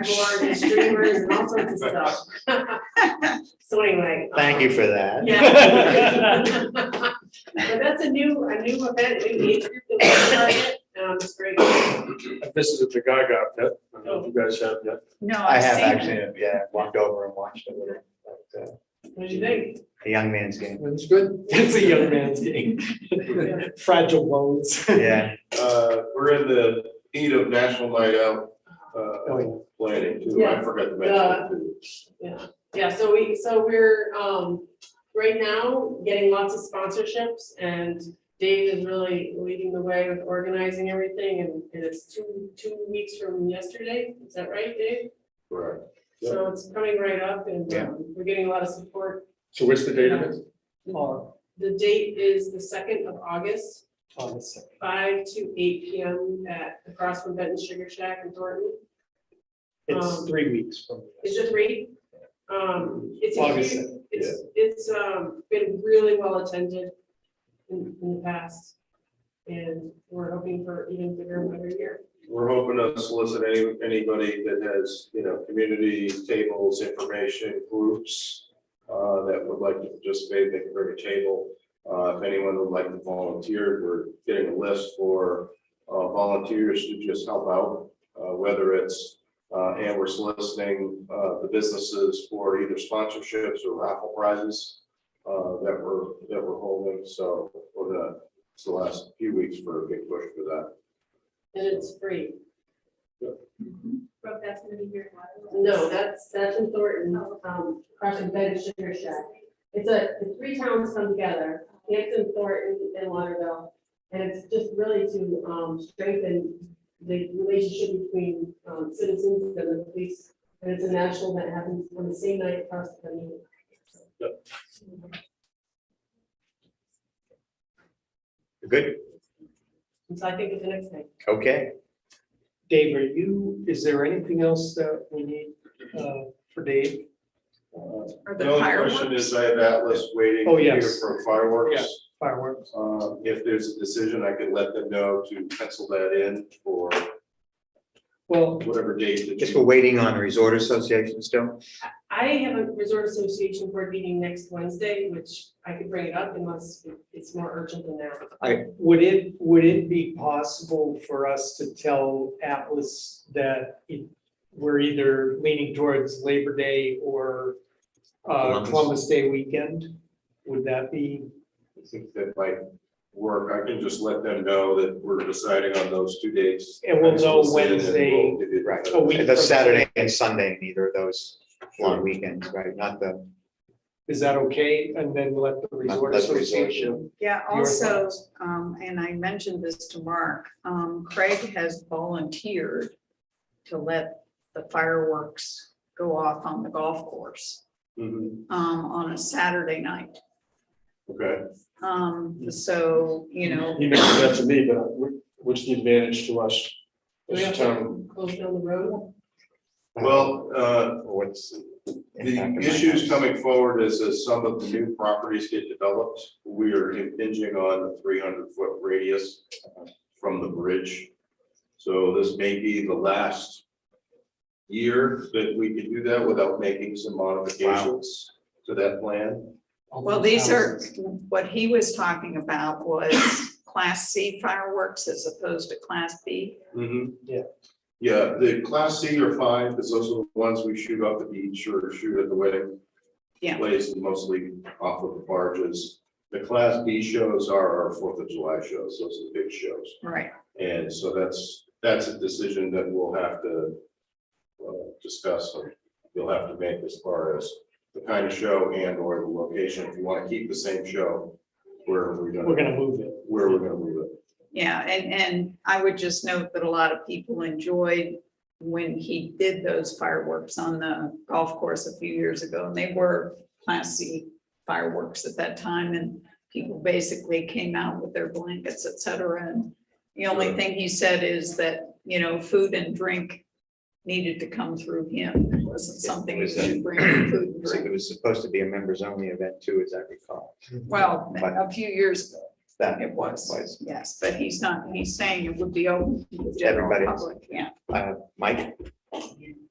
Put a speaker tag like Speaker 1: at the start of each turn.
Speaker 1: cardboard and streamers and all sorts of stuff. So anyway.
Speaker 2: Thank you for that.
Speaker 1: Yeah. But that's a new, a new event, we need to do it, um, it's great.
Speaker 3: I visited the Gaga pit. I don't know if you guys have yet.
Speaker 4: No,
Speaker 2: I
Speaker 4: I've
Speaker 2: have
Speaker 4: seen it.
Speaker 2: actually, yeah, walked over and watched it with her, but, uh,
Speaker 1: What do you think?
Speaker 2: a young man's game,
Speaker 3: It's good.
Speaker 5: It's a young man's game. Fragile bones.
Speaker 2: yeah.
Speaker 3: Uh, we're in the heat of National Night Out,
Speaker 5: Oh,
Speaker 3: uh, planning too. I
Speaker 1: Yeah.
Speaker 3: forgot to mention that too.
Speaker 1: Yeah, yeah, so we, so we're, um, right now, getting lots of sponsorships, and Dave is really leading the way with organizing everything, and, and it's two, two weeks from yesterday, is that right, Dave?
Speaker 3: Right.
Speaker 1: So it's coming right up, and,
Speaker 2: Yeah.
Speaker 1: um, we're getting a lot of support.
Speaker 3: So what's the date of it?
Speaker 5: On,
Speaker 1: The date is the second of August,
Speaker 5: on the second.
Speaker 1: five to eight P M at, across from Benton Sugar Shack in Thornton.
Speaker 5: It's
Speaker 1: Um,
Speaker 5: three weeks from.
Speaker 1: Is it three? Um, it's a
Speaker 5: August
Speaker 1: huge, it's, it's, um, been really well attended in, in the past. And we're hoping for even bigger and better year.
Speaker 3: We're hoping to solicit any, anybody that has, you know, community tables, information groups uh, that would like to participate, they can bring a table. Uh, if anyone would like to volunteer, we're getting a list for uh, volunteers to just help out, uh, whether it's uh, and we're soliciting uh, the businesses for either sponsorships or raffle prizes uh, that we're, that we're holding. So over the, it's the last few weeks for a big push for that.
Speaker 1: And it's free.
Speaker 6: Brooke, that's gonna be your one.
Speaker 1: No, that's, that's in Thornton, um, across from Benton Sugar Shack. It's a, the three towns come together, Hampton, Thornton, and Lauderdale. And it's just really to, um, strengthen the relationship between, um, citizens and the police. And it's a national that happens on the same night across the country.
Speaker 2: Good,
Speaker 1: And so I think it's the next thing.
Speaker 2: okay.
Speaker 5: Dave, are you, is there anything else that we need uh, for Dave? Uh,
Speaker 4: Or the
Speaker 3: The only question
Speaker 4: fireworks.
Speaker 3: is, I have Atlas waiting
Speaker 5: Oh,
Speaker 3: here
Speaker 5: yes.
Speaker 3: for fireworks.
Speaker 5: Fireworks?
Speaker 3: Um, If there's a decision, I could let them know to pencil that in for
Speaker 5: Well,
Speaker 3: whatever date. that
Speaker 2: Just
Speaker 3: you-
Speaker 2: we're waiting on the Resort Association still.
Speaker 1: I have a Resort Association Board meeting next Wednesday, which I could bring it up unless it's more urgent than that.
Speaker 5: would it, would it be possible for us to tell Atlas that it- we're either leaning towards Labor Day or uh,
Speaker 2: Columbus.
Speaker 5: Columbus Day weekend? Would that be?
Speaker 3: I think that might work. I can just let them know that we're deciding on those two dates.
Speaker 5: And we'll know
Speaker 3: Pencil this in, and
Speaker 5: Wednesday,
Speaker 3: we'll give you-
Speaker 2: right.
Speaker 5: a week
Speaker 2: That's
Speaker 5: from-
Speaker 2: Saturday and Sunday, neither of those long weekends, right? Not the,
Speaker 5: Is that okay? And then let the resort
Speaker 2: Let the resort.
Speaker 5: association.
Speaker 4: Yeah,
Speaker 5: Your
Speaker 4: also,
Speaker 5: thoughts.
Speaker 4: um, and I mentioned this to Mark, um, Craig has volunteered to let the fireworks go off on the golf course,
Speaker 3: Mhm,
Speaker 4: um, on a Saturday night.
Speaker 3: Okay,
Speaker 4: Um, so, you know,
Speaker 7: He mentioned that to me, but wh- what's the advantage to us?
Speaker 1: Do we
Speaker 7: as a
Speaker 1: have
Speaker 7: town?
Speaker 1: to close down the road?
Speaker 3: well, uh,
Speaker 2: what's. the impact
Speaker 3: the
Speaker 2: it might
Speaker 3: issues
Speaker 2: have?
Speaker 3: coming forward is as some of the new properties get developed, we are impinging on the three hundred foot radius from the bridge. So this may be the last year that we can do that without making some modifications to that plan.
Speaker 4: well, these are, what he was talking about was class C fireworks as opposed to class B.
Speaker 5: Yeah.
Speaker 3: Yeah, the class C are fine, because those are the ones we shoot off the beach or shoot at the wedding.
Speaker 4: Yeah.
Speaker 3: Place mostly off of the barges. The class B shows are our Fourth of July shows, those are the big shows.
Speaker 4: Right.
Speaker 3: And so that's, that's a decision that we'll have to uh, discuss, or you'll have to make as far as the kind of show and or the location, if you want to keep the same show, where are we gonna,
Speaker 5: We're gonna move it.
Speaker 3: where we're gonna move it.
Speaker 4: Yeah, and, and I would just note that a lot of people enjoyed when he did those fireworks on the golf course a few years ago, and they were classy fireworks at that time, and people basically came out with their blankets, et cetera, and the only thing he said is that, you know, food and drink needed to come through him, it wasn't something you should bring food and
Speaker 2: So
Speaker 4: drink.
Speaker 2: It was supposed to be a members only event too, as I recall.
Speaker 4: Well,
Speaker 2: But
Speaker 4: a few years ago,
Speaker 2: that
Speaker 4: it was,
Speaker 2: was,
Speaker 4: yes, but he's not, he's saying it would be open to the general
Speaker 2: Everybody.
Speaker 4: public, yeah.
Speaker 2: uh, Mike,
Speaker 5: You-